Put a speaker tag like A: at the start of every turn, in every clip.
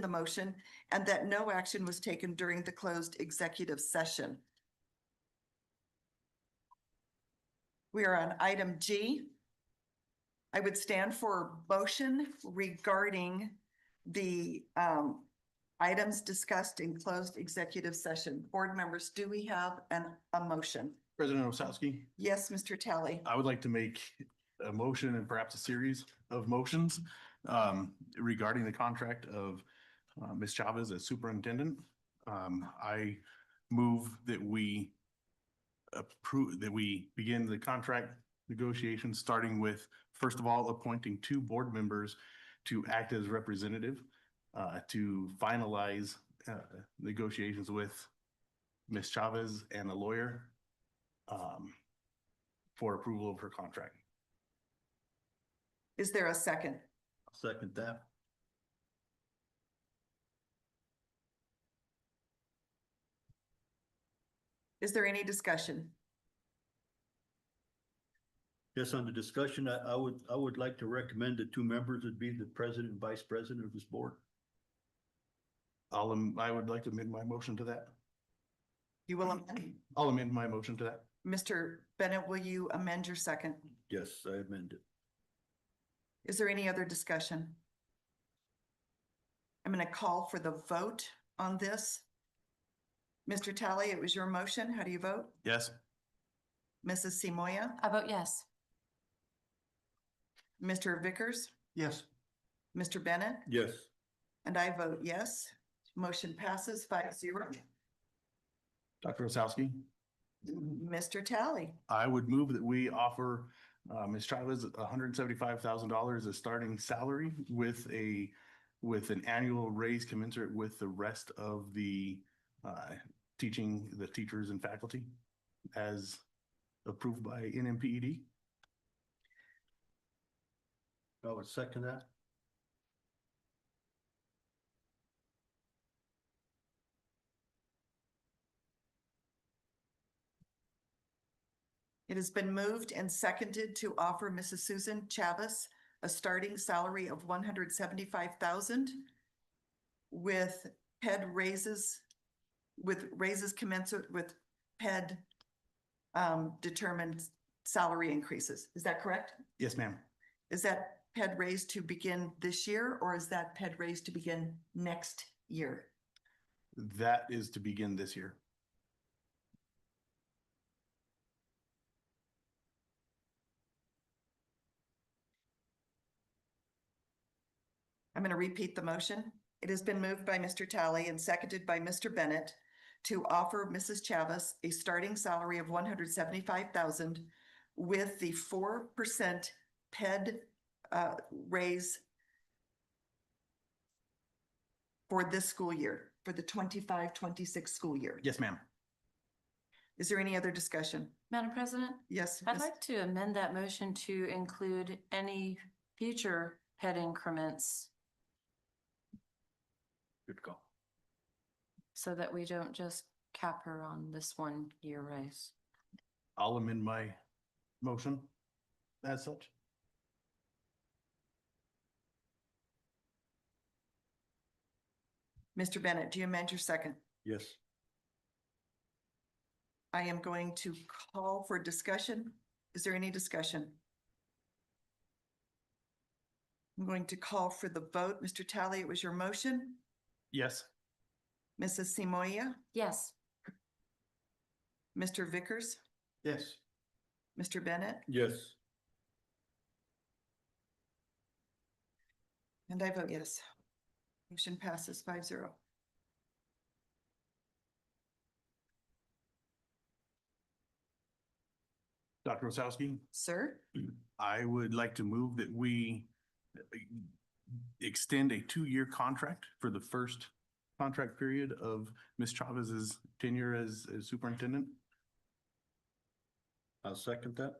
A: the motion and that no action was taken during the closed executive session. We are on item G. I would stand for motion regarding the um items discussed in closed executive session. Board members, do we have an a motion?
B: President Osowski,
A: Yes, Mr. Tally.
B: I would like to make a motion and perhaps a series of motions um, regarding the contract of uh, Ms. Chavez as superintendent. Um, I move that we approve, that we begin the contract negotiations, starting with, first of all, appointing two board members to act as representative uh, to finalize uh, negotiations with Ms. Chavez and a lawyer. Um, for approval of her contract.
A: Is there a second?
B: Second that.
A: Is there any discussion?
C: Yes, on the discussion, I, I would, I would like to recommend the two members would be the president and vice president of this board.
B: I'll, am- I would like to amend my motion to that.
A: You will amend?
B: I'll amend my motion to that.
A: Mr. Bennett, will you amend your second?
C: Yes, I amend it.
A: Is there any other discussion? I'm going to call for the vote on this. Mr. Tally, it was your motion. How do you vote?
B: Yes.
A: Mrs. Simoia?
D: I vote yes.
A: Mr. Vickers?
B: Yes.
A: Mr. Bennett?
C: Yes.
A: And I vote yes. Motion passes five zero.
B: Dr. Osowski,
A: Mr. Tally,
B: I would move that we offer uh, Ms. Chavez hundred and seventy-five thousand dollars as starting salary with a, with an annual raise commensurate with the rest of the uh, teaching, the teachers and faculty as approved by NMPED.
C: I would second that.
A: it has been moved and seconded to offer Mrs. Susan Chavez a starting salary of one hundred seventy-five thousand with head raises, with raises commensurate with head um, determined salary increases. Is that correct?
B: Yes, ma'am.
A: Is that head raise to begin this year or is that head raise to begin next year?
B: That is to begin this year.
A: I'm going to repeat the motion. It has been moved by Mr. Talley and seconded by Mr. Bennett to offer Mrs. Chavez a starting salary of one hundred seventy-five thousand with the four percent PED uh, raise for this school year, for the 25-26 school year.
B: Yes, ma'am.
A: Is there any other discussion?
D: Madam President,
A: Yes.
D: I'd
A: Ms.
D: like to amend that motion to include any future head increments
C: Good call.
D: so that we don't just cap her on this one year raise.
B: I'll amend my motion as such.
A: Mr. Bennett, do you amend your second?
C: Yes.
A: I am going to call for discussion. Is there any discussion? I'm going to call for the vote. Mr. Talley, it was your motion.
B: Yes.
A: Mrs. Simoia,
D: Yes,
A: Mr. Vickers,
C: Yes.
A: Mr. Bennett,
C: Yes.
A: and I vote yes. Motion passes five zero.
B: Dr. Osowski,
A: Sir,
B: I would like to move that we extend a two-year contract for the first contract period of Ms. Chavez's tenure as as superintendent.
C: I'll second that.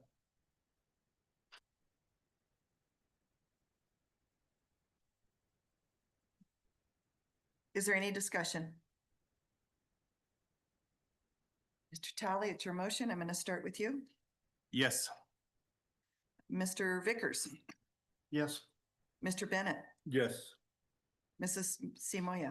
A: is there any discussion? Mr. Talley, it's your motion. I'm going to start with you.
B: Yes.
A: Mr. Vickers,
C: Yes.
A: Mr. Bennett,
C: Yes.
A: Mrs. Simoia.